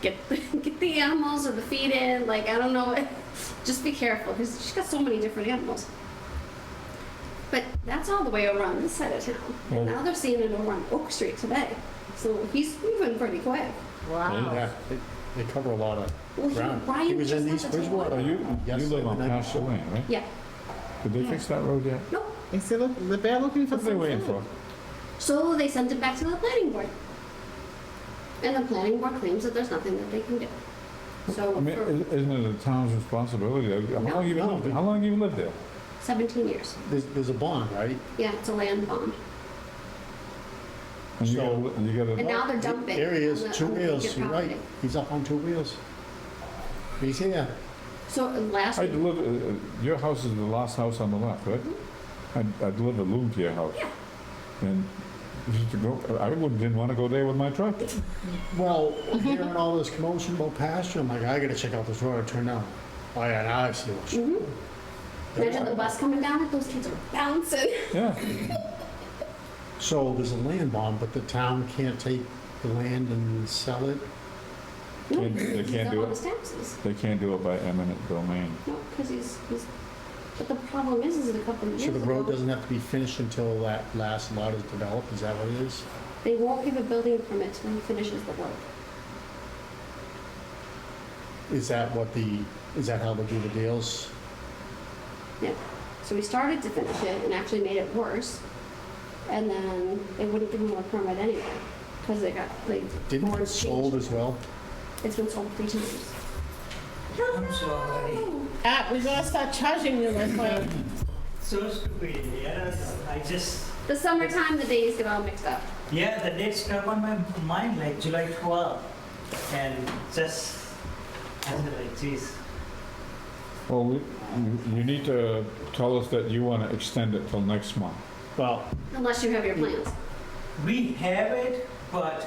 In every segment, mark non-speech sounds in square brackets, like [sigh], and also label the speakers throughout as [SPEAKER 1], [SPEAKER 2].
[SPEAKER 1] get [laughs] get the animals or the feed in. Like I don't know, [laughs] just be careful because she's got so many different animals. But that's all the way around this side of town.
[SPEAKER 2] Oh.
[SPEAKER 1] And now they're seeing it over on Oak Street today. So he's moving pretty quick.
[SPEAKER 3] Wow.
[SPEAKER 2] Yeah, they- they cover a lot of
[SPEAKER 1] Well, he-
[SPEAKER 2] ground.
[SPEAKER 1] Ryan
[SPEAKER 2] He was in
[SPEAKER 1] just
[SPEAKER 2] East
[SPEAKER 1] happened to-
[SPEAKER 2] Bridgewater.
[SPEAKER 3] Oh, you, you
[SPEAKER 2] Yes,
[SPEAKER 3] live on
[SPEAKER 2] the night
[SPEAKER 3] Pasture
[SPEAKER 2] before.
[SPEAKER 3] Lane, right?
[SPEAKER 1] Yeah.
[SPEAKER 3] Did they fix that road yet?
[SPEAKER 1] Nope.
[SPEAKER 3] They still look, they're looking for
[SPEAKER 4] some
[SPEAKER 3] What are they waiting for?
[SPEAKER 4] food.
[SPEAKER 1] So they sent it back to the planning board. And the planning board claims that there's nothing that they can do.
[SPEAKER 3] I
[SPEAKER 1] So
[SPEAKER 3] mean,
[SPEAKER 1] for
[SPEAKER 3] i- isn't it the town's responsibility? How
[SPEAKER 1] No,
[SPEAKER 3] long you been
[SPEAKER 2] no,
[SPEAKER 3] lived,
[SPEAKER 2] but-
[SPEAKER 3] how long you lived there?
[SPEAKER 1] seventeen years.
[SPEAKER 2] There's, there's a bond, right?
[SPEAKER 1] Yeah, it's a land bond.
[SPEAKER 3] And you gotta,
[SPEAKER 2] So-
[SPEAKER 3] li- you gotta,
[SPEAKER 1] And now they're dumping.
[SPEAKER 2] There he
[SPEAKER 1] on
[SPEAKER 2] is,
[SPEAKER 1] the-
[SPEAKER 2] two
[SPEAKER 1] on the
[SPEAKER 2] wheels,
[SPEAKER 1] vacant
[SPEAKER 2] you're right.
[SPEAKER 1] property.
[SPEAKER 2] He's up on two wheels. He's here.
[SPEAKER 1] So last,
[SPEAKER 3] I
[SPEAKER 1] week-
[SPEAKER 3] delivered, uh, your house is the last house on the left, right? I, I delivered Lou to your house.
[SPEAKER 1] Yeah.
[SPEAKER 3] And just to go, I wouldn't, didn't wanna go there with my truck.
[SPEAKER 2] Well, hearing all this commotion about pasture, I'm like, I gotta check out this road, I turn down. Oh yeah, now I see what's.
[SPEAKER 1] Mm-hmm. imagine the bus coming down, it, those kids are bouncing.
[SPEAKER 3] Yeah,
[SPEAKER 2] So there's a land bond, but the town can't take the land and sell it?
[SPEAKER 3] Can't-
[SPEAKER 1] [laughs]
[SPEAKER 3] they
[SPEAKER 1] He's
[SPEAKER 3] can't
[SPEAKER 1] up
[SPEAKER 3] do
[SPEAKER 1] on
[SPEAKER 3] it.
[SPEAKER 1] his taxes.
[SPEAKER 3] they can't do it by eminent domain.
[SPEAKER 1] No, because he's, he's, but the problem is, is in a couple of
[SPEAKER 2] So
[SPEAKER 1] years
[SPEAKER 2] the road
[SPEAKER 1] ago,
[SPEAKER 2] doesn't have to be finished until that last lot is developed, is that what it is?
[SPEAKER 1] they won't give a building permit till he finishes the work.
[SPEAKER 2] Is that what the, is that how they do the deals?
[SPEAKER 1] Yeah. So we started to finish it and actually made it worse. And then they wouldn't give him a permit anyway, because they got, like,
[SPEAKER 2] Didn't it get
[SPEAKER 1] boards
[SPEAKER 2] sold
[SPEAKER 1] changed.
[SPEAKER 2] as well?
[SPEAKER 1] It's been sold three times.
[SPEAKER 4] I'm sorry.
[SPEAKER 3] Ah, we gotta start charging you, my friend.
[SPEAKER 4] So stupid, yes, I just,
[SPEAKER 1] The summertime, the days get all mixed up.
[SPEAKER 4] yeah, the dates come on my mind, like July 12, and just, I was like, geez.
[SPEAKER 3] Well, we- you- you need to tell us that you wanna extend it till next month.
[SPEAKER 2] Well,
[SPEAKER 1] Unless you have your plans.
[SPEAKER 4] We have it, but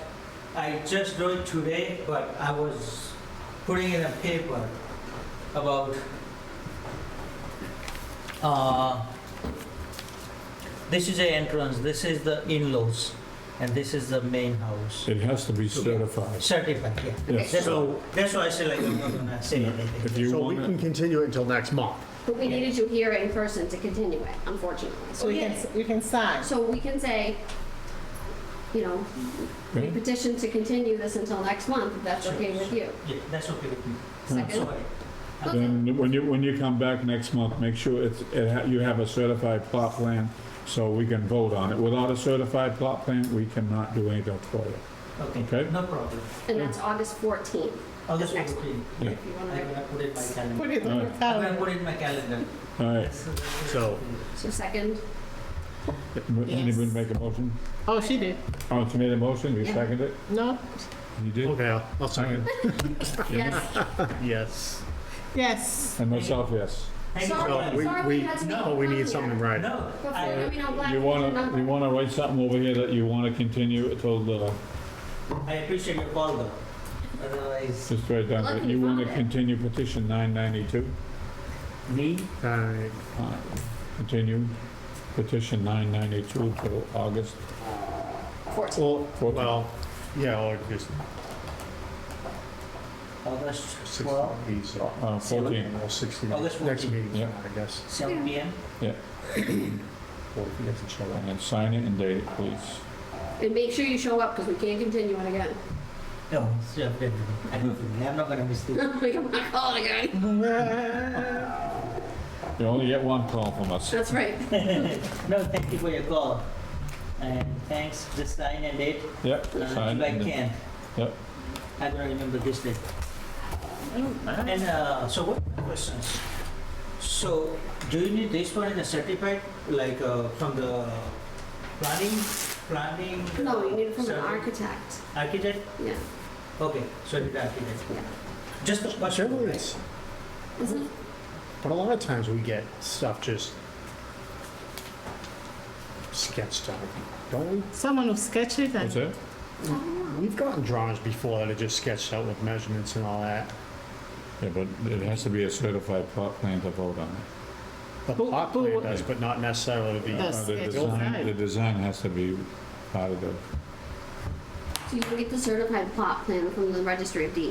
[SPEAKER 4] I just wrote today, but I was putting in a paper about uh, this is the entrance, this is the in-laws, and this is the main house.
[SPEAKER 3] It has to be certified.
[SPEAKER 4] Certified, yeah.
[SPEAKER 3] Yes.
[SPEAKER 4] That's why, that's why I said like I'm not gonna say anything.
[SPEAKER 3] If you
[SPEAKER 2] so we
[SPEAKER 3] want
[SPEAKER 2] can
[SPEAKER 3] it,
[SPEAKER 2] continue it until next month.
[SPEAKER 1] But we needed you here in person to continue it, unfortunately.
[SPEAKER 5] So we can, we can sign.
[SPEAKER 1] So we can say, you know, we
[SPEAKER 3] okay?
[SPEAKER 1] petition to continue this until next month, if that's okay with you.
[SPEAKER 4] Yeah, that's okay with me.
[SPEAKER 1] Second?
[SPEAKER 4] Sorry.
[SPEAKER 1] Okay.
[SPEAKER 3] then when you, when you come back next month, make sure it's, it ha- you have a certified plot plan so we can vote on it. Without a certified plot plan, we cannot do anything for you. Okay.
[SPEAKER 4] Okay, no problem.
[SPEAKER 1] And that's August fourteenth,
[SPEAKER 4] I'll just
[SPEAKER 1] Next.
[SPEAKER 4] put it in.
[SPEAKER 3] Yeah.
[SPEAKER 1] if you
[SPEAKER 4] I'm
[SPEAKER 1] want to.
[SPEAKER 4] gonna put it in my
[SPEAKER 5] Put
[SPEAKER 4] calendar.
[SPEAKER 5] it on
[SPEAKER 3] Alright.
[SPEAKER 4] I'm gonna
[SPEAKER 5] the calendar.
[SPEAKER 4] put it in my calendar.
[SPEAKER 3] All right,
[SPEAKER 2] So-
[SPEAKER 1] So second,
[SPEAKER 3] M- anybody make a motion?
[SPEAKER 5] Oh, she did.
[SPEAKER 3] Oh, she made a motion, you
[SPEAKER 1] Yeah.
[SPEAKER 3] second it?
[SPEAKER 5] No?
[SPEAKER 3] You did?
[SPEAKER 2] Okay, I'll- I'll second.
[SPEAKER 1] yes.
[SPEAKER 2] Yes.
[SPEAKER 5] Yes.
[SPEAKER 3] And myself, yes.
[SPEAKER 4] Thank you.
[SPEAKER 1] Sorry.
[SPEAKER 2] No,
[SPEAKER 4] Sorry.
[SPEAKER 2] we,
[SPEAKER 1] Sorry,
[SPEAKER 2] we,
[SPEAKER 1] we had some
[SPEAKER 2] no, we need something right.
[SPEAKER 4] No,
[SPEAKER 1] But for-
[SPEAKER 4] I,
[SPEAKER 1] I mean, I'm glad
[SPEAKER 3] You
[SPEAKER 1] we did
[SPEAKER 3] wanna,
[SPEAKER 1] remember.
[SPEAKER 3] you wanna write something over here that you wanna continue it till the,
[SPEAKER 4] I appreciate your call though. Otherwise,
[SPEAKER 3] just write down, that you wanna continue petition nine ninety-two?
[SPEAKER 4] me?
[SPEAKER 2] Alright.
[SPEAKER 3] Alright, Continue petition 992 till August
[SPEAKER 1] Fourteenth.
[SPEAKER 2] Well,
[SPEAKER 3] 14th.
[SPEAKER 2] well, yeah, or just
[SPEAKER 4] August
[SPEAKER 2] six
[SPEAKER 4] 12,
[SPEAKER 2] days.
[SPEAKER 3] Uh, 14.
[SPEAKER 2] Well, sixteen,
[SPEAKER 4] Oh, that's
[SPEAKER 2] next
[SPEAKER 4] 14.
[SPEAKER 2] meeting,
[SPEAKER 3] Yeah.
[SPEAKER 2] I guess,
[SPEAKER 4] 7 p.m.
[SPEAKER 2] or if you have to show up.
[SPEAKER 3] And then sign it and date it, please.
[SPEAKER 1] And make sure you show up, because we can't continue it again. [laughs]
[SPEAKER 4] No, it's up there. I don't think- I'm not gonna miss this.
[SPEAKER 1] We can call it again.
[SPEAKER 3] You only get one call from us.
[SPEAKER 1] That's right.
[SPEAKER 4] No, thank you for your call. And thanks, this sign and date,
[SPEAKER 3] Yep,
[SPEAKER 4] uh,
[SPEAKER 3] sign
[SPEAKER 4] July
[SPEAKER 3] and date.
[SPEAKER 4] 10.
[SPEAKER 3] Yep.
[SPEAKER 4] I'm gonna remember this date. And uh, so what are my questions? So do you need this one in a certified, like uh, from the planning, planning?
[SPEAKER 1] No, you need it from an
[SPEAKER 4] survey-
[SPEAKER 1] architect.
[SPEAKER 4] Architect?
[SPEAKER 1] Yeah,
[SPEAKER 4] Okay, so you need architect.
[SPEAKER 1] yeah.
[SPEAKER 4] Just the
[SPEAKER 2] But
[SPEAKER 4] first one,
[SPEAKER 2] sure
[SPEAKER 4] right?
[SPEAKER 2] it's,
[SPEAKER 1] Isn't it?
[SPEAKER 2] but a lot of times we get stuff just sketched out, don't we?
[SPEAKER 5] Someone will sketch it
[SPEAKER 3] What's
[SPEAKER 5] and
[SPEAKER 3] that?
[SPEAKER 1] Oh,
[SPEAKER 2] We've gotten drawings before that are just sketched out with measurements and all that.
[SPEAKER 3] Yeah, but it has to be a certified plot plan to vote on. it.
[SPEAKER 2] The
[SPEAKER 5] But-
[SPEAKER 2] plot
[SPEAKER 5] but
[SPEAKER 2] plan
[SPEAKER 5] what-
[SPEAKER 2] does, but not necessarily the,
[SPEAKER 5] Yes.
[SPEAKER 3] Uh, The
[SPEAKER 5] it's
[SPEAKER 3] design,
[SPEAKER 5] fine.
[SPEAKER 3] the design has to be part of the
[SPEAKER 1] So you can get the certified plot plan from the registry of deeds.